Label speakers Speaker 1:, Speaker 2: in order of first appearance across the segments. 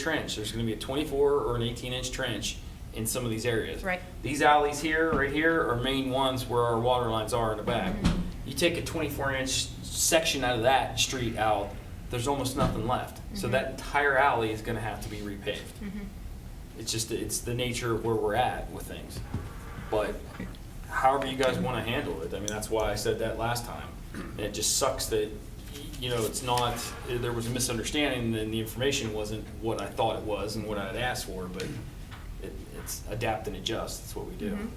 Speaker 1: trench. There's gonna be a twenty-four or an eighteen-inch trench in some of these areas.
Speaker 2: Right.
Speaker 1: These alleys here, right here, are main ones where our water lines are in the back. You take a twenty-four inch section out of that street out, there's almost nothing left. So
Speaker 2: Mhm.
Speaker 1: that entire alley is gonna have to be repaved.
Speaker 2: Mhm.
Speaker 1: It's just, it's the nature of where we're at with things. But however you guys want to handle it, I mean, that's why I said that last time. And it just sucks that, you know, it's not, there was a misunderstanding and the information wasn't what I thought it was and what I had asked for, but it, it's adapt and adjust, that's what we do.
Speaker 2: Mhm.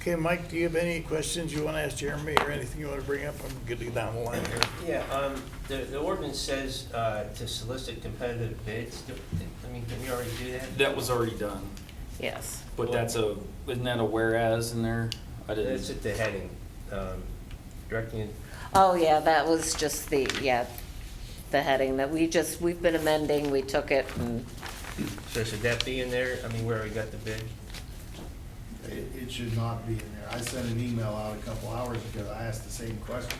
Speaker 3: Okay, Mike, do you have any questions you want to ask Jeremy or anything you want to bring up? I'm good to get down the line here.
Speaker 4: Yeah, um, the, the ordinance says, uh, to solicit competitive bids, Do- I mean, can we already do that?
Speaker 1: That was already done,
Speaker 2: Yes.
Speaker 1: but that's a, isn't that a whereas in there? I
Speaker 4: That's
Speaker 1: didn't,
Speaker 4: at the heading, um, directing,
Speaker 5: Oh, yeah, that was just the, yeah, the heading that we just, we've been amending, we took it
Speaker 6: Mm.
Speaker 5: and,
Speaker 4: so should that be in there? I mean, where we got the bid?
Speaker 6: It, it should not be in there. I sent an email out a couple hours ago. I asked the same question.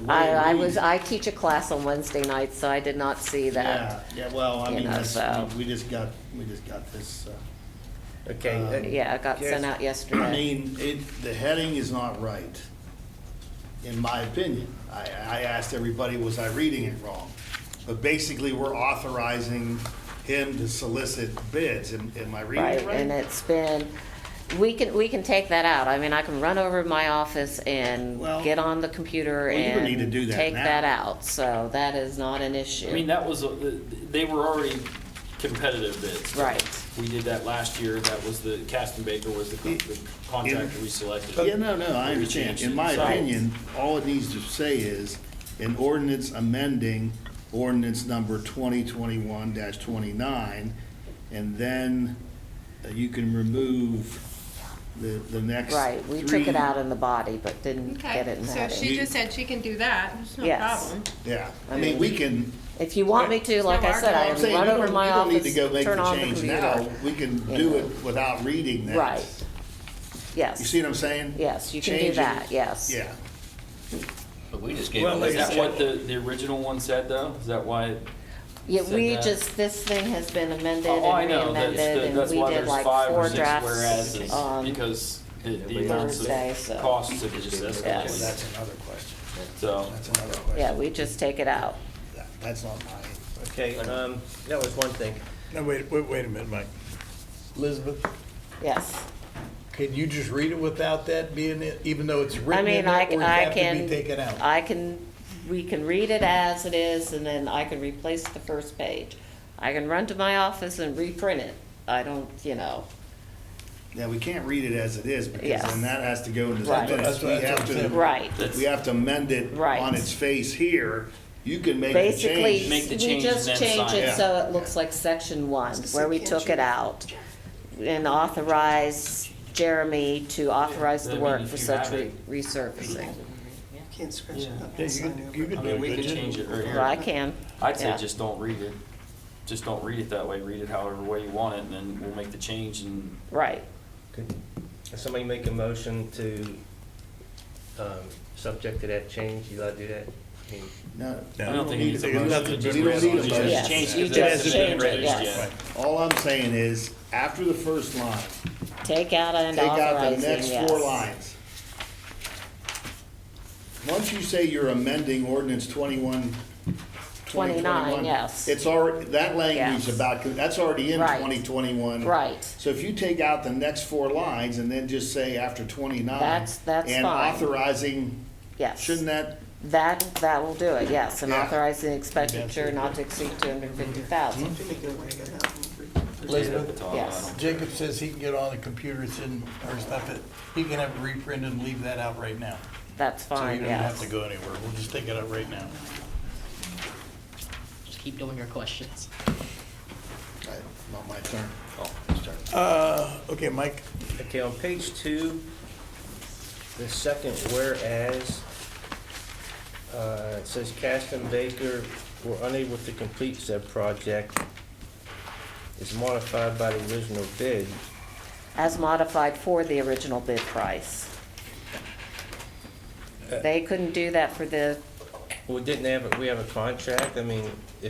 Speaker 6: The way
Speaker 5: I,
Speaker 6: it
Speaker 5: I was,
Speaker 6: reads-
Speaker 5: I teach a class on Wednesday nights, so I did not see that.
Speaker 6: Yeah, yeah, well, I
Speaker 5: You
Speaker 6: mean,
Speaker 5: know,
Speaker 6: that's,
Speaker 5: so-
Speaker 6: we we just got, we just got this, uh,
Speaker 4: Okay.
Speaker 6: Um,
Speaker 4: that-
Speaker 5: Yeah, it got sent
Speaker 4: yes.
Speaker 5: out
Speaker 6: I
Speaker 5: yesterday.
Speaker 6: mean, it, the heading is not right, in my opinion. I, I asked everybody, was I reading it wrong? But basically, we're authorizing him to solicit bids. Am, am I reading
Speaker 5: Right,
Speaker 6: it
Speaker 5: and
Speaker 6: right?
Speaker 5: it's been, we can, we can take that out. I mean, I can run over to my office and
Speaker 6: Well-
Speaker 5: get on the computer
Speaker 6: Well, you would
Speaker 5: and
Speaker 6: need to do that
Speaker 5: take
Speaker 6: now.
Speaker 5: that out, so that is not
Speaker 1: I
Speaker 5: an
Speaker 1: mean,
Speaker 5: issue.
Speaker 1: that was, a- they were already competitive bids.
Speaker 5: Right.
Speaker 1: We did that last year, that was the, Caston Baker was the con- the contractor we selected.
Speaker 6: Yeah, no, no, I
Speaker 1: We
Speaker 6: understand.
Speaker 1: changed
Speaker 6: In
Speaker 1: it.
Speaker 6: my
Speaker 1: So-
Speaker 6: opinion, all it needs to say is, an ordinance amending ordinance number twenty twenty-one twenty-nine, and then uh, you can remove the, the next
Speaker 5: Right, we took
Speaker 6: three-
Speaker 5: it out in the body, but didn't get it
Speaker 2: Okay,
Speaker 5: in the
Speaker 2: so
Speaker 5: heading.
Speaker 2: she just said she can do that, it's no
Speaker 5: Yes.
Speaker 2: problem.
Speaker 6: Yeah, I mean, we can,
Speaker 5: If you want me to, like I said, I
Speaker 6: I'm
Speaker 5: can
Speaker 6: saying, we
Speaker 5: run
Speaker 6: don't,
Speaker 5: over
Speaker 6: we
Speaker 5: to my
Speaker 6: don't need to
Speaker 5: office,
Speaker 6: go make
Speaker 5: turn
Speaker 6: the
Speaker 5: on the
Speaker 6: change now.
Speaker 5: computer.
Speaker 6: We can
Speaker 5: you
Speaker 6: do
Speaker 5: know.
Speaker 6: it without reading that.
Speaker 5: Right,
Speaker 6: You
Speaker 5: yes,
Speaker 6: see what I'm saying?
Speaker 5: yes, you can
Speaker 6: Change
Speaker 5: do
Speaker 6: it.
Speaker 5: that, yes.
Speaker 6: Yeah.
Speaker 7: But we just gave
Speaker 3: Well,
Speaker 7: them
Speaker 3: like
Speaker 1: Is
Speaker 3: I
Speaker 1: that
Speaker 3: said-
Speaker 1: what the, the original one said though? Is that why? it-
Speaker 5: Yeah,
Speaker 1: Said
Speaker 5: we
Speaker 1: that.
Speaker 5: just, this thing has been amended and
Speaker 1: Oh, I know, that's,
Speaker 5: reamended,
Speaker 1: the-
Speaker 5: and
Speaker 1: that's
Speaker 5: we
Speaker 1: why
Speaker 5: did
Speaker 1: there's
Speaker 5: like
Speaker 1: five or
Speaker 5: four
Speaker 1: six whereas,
Speaker 5: drafts on,
Speaker 1: because the, the amounts
Speaker 5: Thursday,
Speaker 1: of
Speaker 5: so-
Speaker 1: costs have just
Speaker 5: Yes.
Speaker 6: Well,
Speaker 1: escalated.
Speaker 6: that's another question.
Speaker 1: So,
Speaker 6: That's another question.
Speaker 5: yeah, we just take it out.
Speaker 6: That- That's not mine.
Speaker 4: Okay, um, that was one thing.
Speaker 3: No, wait, wait, wait a minute, Mike.
Speaker 8: Elizabeth,
Speaker 5: Yes,
Speaker 8: can you just read it without that being, in- even though it's
Speaker 5: I
Speaker 8: written in
Speaker 5: mean,
Speaker 8: there,
Speaker 5: I,
Speaker 8: or does it
Speaker 5: I
Speaker 8: have to be
Speaker 5: can,
Speaker 8: taken out?
Speaker 5: I can, we can read it as it is, and then I can replace the first page. I can run to my office and reprint it, I don't, you know,
Speaker 6: Yeah, we can't read it as it is, because
Speaker 5: Yes.
Speaker 6: then that has to go into the
Speaker 5: Right.
Speaker 6: minutes.
Speaker 8: That's
Speaker 6: We
Speaker 8: what- that's
Speaker 6: have
Speaker 8: what I'm
Speaker 6: to,
Speaker 8: saying.
Speaker 5: right.
Speaker 6: we have to amend it
Speaker 5: Right.
Speaker 6: on its face here. You can make the
Speaker 5: Basically,
Speaker 6: change.
Speaker 1: Make the
Speaker 5: we
Speaker 1: change
Speaker 5: just
Speaker 1: and then
Speaker 5: change
Speaker 1: sign.
Speaker 5: it so it looks like section one, where we took it out. And authorize Jeremy to authorize
Speaker 1: I
Speaker 5: the
Speaker 1: mean,
Speaker 5: work
Speaker 1: if
Speaker 5: for
Speaker 1: you
Speaker 5: such
Speaker 1: have
Speaker 5: re-
Speaker 1: it.
Speaker 5: resurfacing.
Speaker 9: Can't scratch it up.
Speaker 3: Yeah, you could, you
Speaker 1: I
Speaker 3: could do
Speaker 1: mean,
Speaker 3: it,
Speaker 1: we could
Speaker 3: couldn't you?
Speaker 1: change it right
Speaker 5: Well, I
Speaker 1: here.
Speaker 5: can.
Speaker 1: I'd say
Speaker 5: yeah.
Speaker 1: just don't read it. Just don't read it that way. Read it however way you want it and then we'll make the change and
Speaker 5: Right,
Speaker 4: Could somebody make a motion to, um, subject to that change, you allowed to do that? I mean,
Speaker 6: No,
Speaker 1: I don't think it needs a
Speaker 3: There's nothing-
Speaker 1: motion.
Speaker 6: just we don't need a
Speaker 1: resolution.
Speaker 6: motion.
Speaker 1: Just change
Speaker 5: Yes,
Speaker 1: it
Speaker 5: you
Speaker 1: 'cause
Speaker 5: just
Speaker 1: hasn't been
Speaker 5: change it,
Speaker 1: raised
Speaker 5: yes.
Speaker 1: yet.
Speaker 6: All I'm saying is, after the first line,
Speaker 5: take out and
Speaker 6: take out the
Speaker 5: authorizing,
Speaker 6: next
Speaker 5: yes.
Speaker 6: four lines. Once you say you're amending ordinance twenty-one, twenty
Speaker 5: 29,
Speaker 6: twenty-one.
Speaker 5: yes.
Speaker 6: It's already, that language
Speaker 5: Yes.
Speaker 6: about, that's already in
Speaker 5: Right.
Speaker 6: twenty twenty-one.
Speaker 5: Right,
Speaker 6: So if you take out the next four lines and then just say after twenty-nine.
Speaker 5: That's- that's
Speaker 6: And
Speaker 5: fine.
Speaker 6: authorizing,
Speaker 5: yes.
Speaker 6: shouldn't that,
Speaker 5: That, that will do it, yes, and
Speaker 6: Yeah.
Speaker 5: authorizing expenditure not to exceed two hundred and fifty thousand,
Speaker 9: Jimmy, go away, go out.
Speaker 1: At the
Speaker 8: Elizabeth,
Speaker 1: top, Oh, I
Speaker 5: yes.
Speaker 8: Jacob says he can get on the computer, it's in, or stuff it, he can have it reprinted and leave that out right now.
Speaker 5: That's
Speaker 8: So you
Speaker 5: fine,
Speaker 8: don't have
Speaker 5: yes.
Speaker 8: to go anywhere, we'll just take it out right now.
Speaker 10: Just keep doing your questions.
Speaker 6: uh, not my turn.
Speaker 3: Uh, okay, Mike,
Speaker 4: Okay, on page two, the second whereas, uh, it says Caston Baker were unable to complete said project is modified by the original bid.
Speaker 5: as modified for the original bid price. They couldn't do that for the
Speaker 4: We didn't have, a- we have a contract, I mean, if